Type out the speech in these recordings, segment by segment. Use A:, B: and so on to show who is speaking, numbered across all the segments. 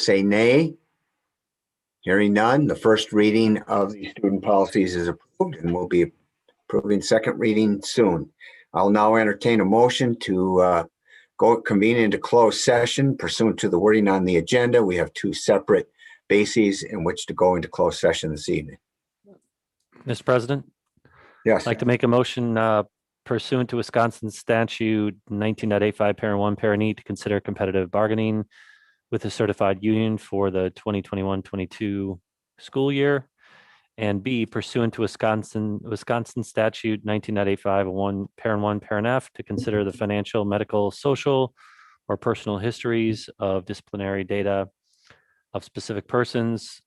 A: say nay. Hearing none, the first reading of the student policies is approved and will be approving second reading soon. I'll now entertain a motion to uh, go convene into closed session pursuant to the wording on the agenda. We have two separate bases in which to go into closed session this evening.
B: Mr. President,
A: Yes,
B: I'd like to make a motion uh, pursuant to Wisconsin statute 19.85, parent one, parent E, to consider competitive bargaining with a certified union for the 2021-22 school year. And B pursuant to Wisconsin, Wisconsin statute 19.85, one, parent one, parent F, to consider the financial, medical, social, or personal histories of disciplinary data of specific persons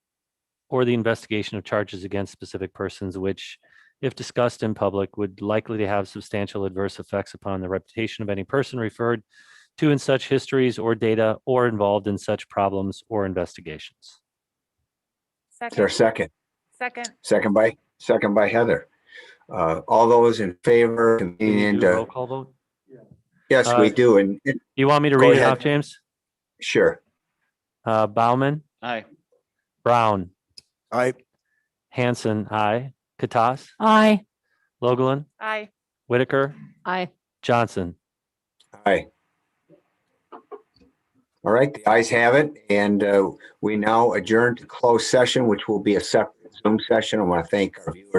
B: or the investigation of charges against specific persons which if discussed in public, would likely to have substantial adverse effects upon the reputation of any person referred to in such histories or data or involved in such problems or investigations.
A: is there a
C: Second,
A: second?
C: second,
A: Second by, second by Heather. Uh, All those in favor,
B: Can
A: convene
B: you do a roll
A: into,
B: call vote?
A: yes,
B: Uh,
A: we do, and and-
B: You want me to
A: Go
B: read it
A: ahead.
B: off, James?
A: sure.
B: Uh, Bauman,
D: Aye.
B: Brown,
E: I
B: Hanson, I, Katas,
F: Aye.
B: Logland,
C: aye.
B: Whitaker,
F: Aye.
B: Johnson.
A: Aye. All right, the ayes have it, and uh, we now adjourn to closed session, which will be a separate Zoom session. I want to thank our viewers.